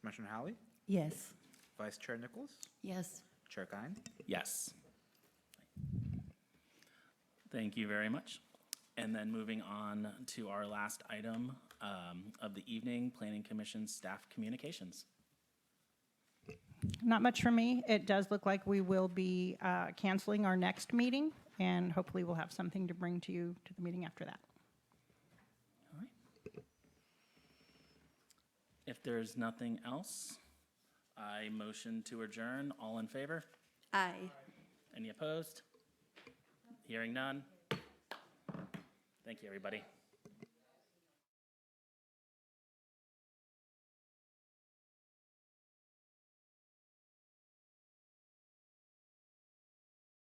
Commissioner Hallie, Yes. Vice Chair Nichols, Yes. Chair Kine. Yes. Thank you very much. And then moving on to our last item um, of the evening, Planning Commission staff communications. Not much for me. It does look like we will be uh, canceling our next meeting, and hopefully we'll have something to bring to you to the meeting after that. All right. If there's nothing else, I motion to adjourn. All in favor? Aye. Any opposed? Hearing none? Thank you, everybody.